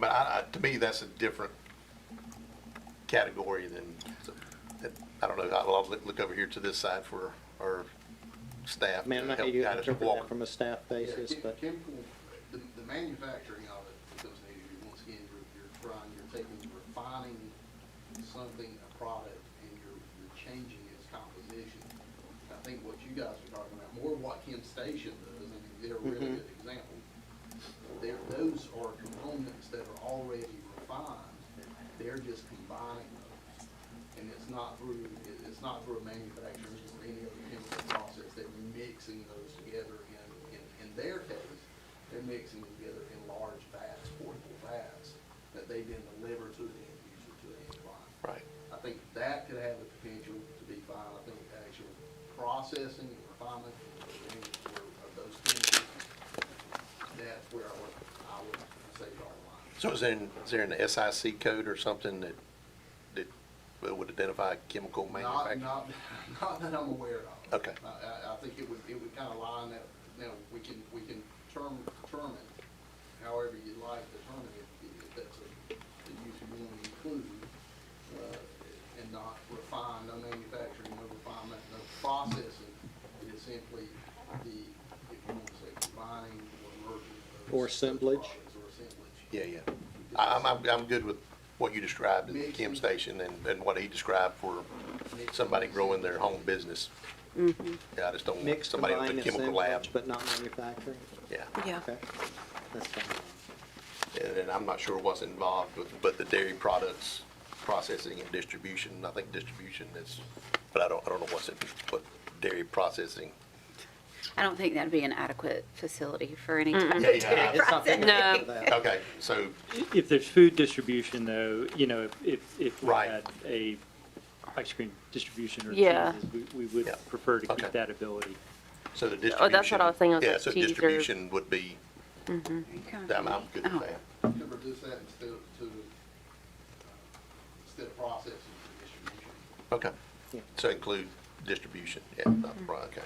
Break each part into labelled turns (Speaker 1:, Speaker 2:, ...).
Speaker 1: But I, I, to me, that's a different category than, I don't know, I'll I'll look over here to this side for our staff.
Speaker 2: I mean, I don't know how
Speaker 1: help
Speaker 2: you
Speaker 1: guide us
Speaker 2: interpret
Speaker 1: walk.
Speaker 2: that from a staff basis,
Speaker 3: Yeah,
Speaker 2: but
Speaker 3: chem- Chemical, the, the manufacturing of it becomes an issue, once again, you're, you're trying, you're taking, refining something, a product, and you're, you're changing its composition. I think what you guys are talking about, more what Kim Station does, I mean, they're a really
Speaker 2: Mm-hmm.
Speaker 3: good example. There, those are components that are already refined, they're just combining those. And it's not through, it- it's not through a manufacturer or any other chemical process, they're mixing those together in, in, in their case, they're mixing them together in large vats, portable vats, that they then deliver to the end user, to the end client.
Speaker 1: Right.
Speaker 3: I think that could have the potential to be fine, I think actual processing and refinement of of those things, that's where I would, I would say draw the line.
Speaker 1: So is there, an- is there an SIC code or something that, that would identify chemical
Speaker 3: Not,
Speaker 1: manufacturer?
Speaker 3: not, not that I'm aware of.
Speaker 1: Okay.
Speaker 3: I, I, I think it would, it would kind of lie in that, now, we can, we can term, term it however you'd like to term it, if- if that's a, the use you want to include, uh, and not refine, no manufacturing, no refinement, no processing. It is simply the, if you want to say combining or merging. those-
Speaker 2: Or assemblage.
Speaker 3: products Or assemblage.
Speaker 1: Yeah, yeah. I- I'm, I'm, I'm good with what you described at the
Speaker 3: Mixing.
Speaker 1: Kim Station and, and what he described for somebody growing their home business. Yeah, I just don't want
Speaker 2: mixed
Speaker 1: somebody with
Speaker 2: combined
Speaker 1: a chemical lab.
Speaker 2: assemblage, but not manufacturing.
Speaker 1: Yeah.
Speaker 4: Yeah,
Speaker 2: Okay, that's fine.
Speaker 1: And then I'm not sure what's involved with, but the dairy products processing and distribution, I think distribution is, but I don't, I don't know what's in, what dairy processing.
Speaker 5: I don't think that'd be an adequate facility for any type of
Speaker 1: Yeah, yeah.
Speaker 2: It's not big
Speaker 4: No.
Speaker 2: enough for that.
Speaker 1: Okay, so,
Speaker 6: If there's food distribution, though, you know, if, if, if we
Speaker 1: Right.
Speaker 6: had a ice cream distribution or
Speaker 4: Yeah.
Speaker 6: cheeses, we, we would
Speaker 1: Yeah.
Speaker 6: prefer to
Speaker 1: Okay.
Speaker 6: keep that ability.
Speaker 1: so the distribution.
Speaker 4: Oh, that's what I was thinking, I was
Speaker 1: Yeah,
Speaker 4: like,
Speaker 1: so
Speaker 4: cheese or-
Speaker 1: distribution would be, I'm, I'm good
Speaker 4: Uh-huh.
Speaker 5: Oh.
Speaker 1: with that.
Speaker 3: to reduce that instead of, to, uh, instead of processing for distribution.
Speaker 1: Okay.
Speaker 2: Yeah.
Speaker 1: So include distribution, yeah,
Speaker 4: Mm-hmm.
Speaker 1: not the product, okay.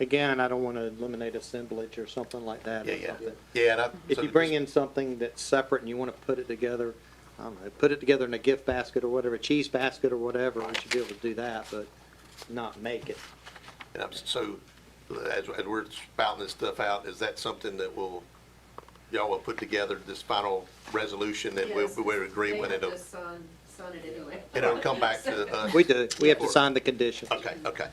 Speaker 2: Again, I don't want to eliminate assemblage or something like that. or
Speaker 1: Yeah, yeah.
Speaker 2: something.
Speaker 1: Yeah, and I.
Speaker 2: If
Speaker 1: so
Speaker 2: you
Speaker 1: to
Speaker 2: bring
Speaker 1: just-
Speaker 2: in something that's separate and you want to put it together, I don't know, put it together in a gift basket or whatever, cheese basket or whatever, we should be able to do that, but not make it.
Speaker 1: And I'm, so, as, as we're spouting this stuff out, is that something that will, y'all will put together this final resolution and we'll,
Speaker 7: Yes,
Speaker 1: we'll agree
Speaker 7: they
Speaker 1: when
Speaker 7: have
Speaker 1: it'll,
Speaker 7: to sign- sign it anyway.
Speaker 1: it'll come back to us?
Speaker 2: We do, we have to
Speaker 1: Or-
Speaker 2: sign the conditions.
Speaker 1: Okay, okay,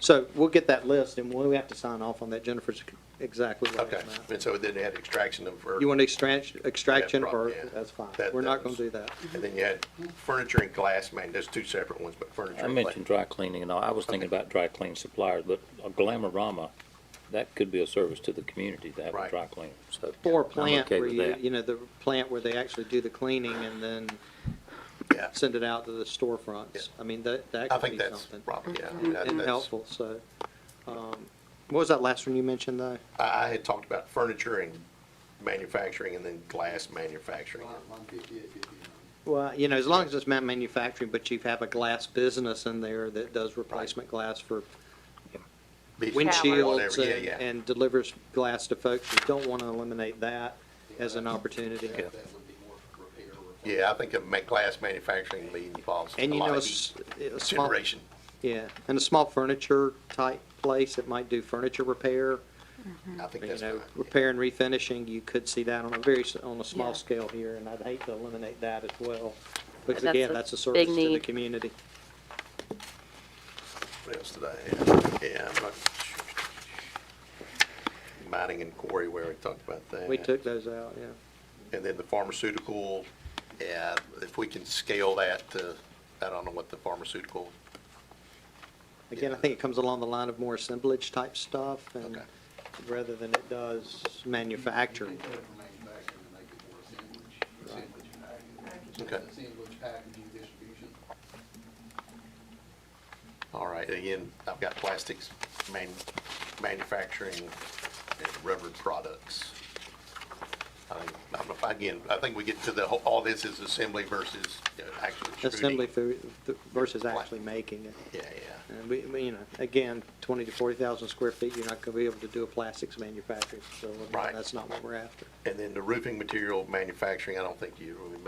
Speaker 2: So we'll get that list and we have to sign off on that. Jennifer's exactly right
Speaker 1: okay.
Speaker 2: on that.
Speaker 1: And so then they had extraction of, or,
Speaker 2: You want extraction, extraction
Speaker 1: Yeah,
Speaker 2: or,
Speaker 1: prob- yeah.
Speaker 2: that's fine.
Speaker 1: That-
Speaker 2: We're
Speaker 1: that
Speaker 2: not going
Speaker 1: was-
Speaker 2: to do that.
Speaker 1: and then you had furniture and glass, man, there's two separate ones, but furniture
Speaker 8: I
Speaker 1: and glass.
Speaker 8: mentioned dry cleaning and all, I was thinking about dry cleaning suppliers, but a Glamorama, that could be a service to the community to have
Speaker 1: Right.
Speaker 8: a dry cleaner, so.
Speaker 2: Or
Speaker 8: I'm
Speaker 2: plant
Speaker 8: okay
Speaker 2: where
Speaker 8: with
Speaker 2: you,
Speaker 8: that.
Speaker 2: you know, the plant where they actually do the cleaning and then
Speaker 1: Yeah.
Speaker 2: send it out to the
Speaker 1: Yeah.
Speaker 2: storefronts. I mean, that, that
Speaker 1: I
Speaker 2: could
Speaker 1: think
Speaker 2: be
Speaker 1: that's
Speaker 2: something. Mm-hmm.
Speaker 1: probably, yeah. I mean, I-
Speaker 2: And
Speaker 1: that's-
Speaker 2: helpful, so. um, What was that last one you mentioned though?
Speaker 1: I, I had talked about furniture and manufacturing and then glass manufacturing.
Speaker 3: Line- line 58, 59.
Speaker 2: Well, you know, as long as it's not manufacturing, but you have a glass business in there that does replacement glass for windshields
Speaker 1: Whatever, yeah,
Speaker 2: and-
Speaker 1: yeah.
Speaker 2: and delivers glass to folks. You don't want to eliminate that as an opportunity.
Speaker 3: That that would be more repair. replace.
Speaker 1: Yeah, I think a ma- glass manufacturing lead involves a
Speaker 2: And you
Speaker 1: lot
Speaker 2: know, a
Speaker 1: of
Speaker 2: s-
Speaker 1: heat
Speaker 2: a small,
Speaker 1: generation.
Speaker 2: yeah, and a small furniture type place that might do furniture repair,
Speaker 1: I think
Speaker 2: you
Speaker 1: that's
Speaker 2: know,
Speaker 1: fine.
Speaker 2: repair Mm-hmm. and refinishing, you could see that on a very, s- on a
Speaker 4: Yeah.
Speaker 2: small scale here, and I'd hate to eliminate that as well. Because
Speaker 4: That's
Speaker 2: again,
Speaker 4: a
Speaker 2: that's a
Speaker 4: big
Speaker 2: service to the
Speaker 4: need.
Speaker 2: community.
Speaker 1: What else did I have? Yeah, I'm not. Mining and quarry where we talked about that.
Speaker 2: We took those out, yeah.
Speaker 1: And then the pharmaceutical, yeah, if we can scale that to, I don't know what the pharmaceutical,
Speaker 2: Again, I think it comes along the line of more assemblage type stuff and
Speaker 1: Okay.
Speaker 2: rather than it does manufacturing.
Speaker 3: You can take it from manufacturing and make it more assemblage, assemblage package.
Speaker 1: Okay.
Speaker 3: Assemblage packaging distribution.
Speaker 1: all right, again, I've got plastics, man, manufacturing, and rubber products. I think- I don't know, if- again, I think we get to the, whole- all this is assembly versus uh, you know, actually extruding.
Speaker 2: Assembly food versus actually making it.
Speaker 1: Yeah, yeah.
Speaker 2: And we, we, you know, again, twenty to forty thousand square feet, you're not gonna be able to do a plastics manufacturing facility.
Speaker 1: Right.
Speaker 2: That's not what we're after.
Speaker 1: And then the roofing material manufacturing, I don't think you really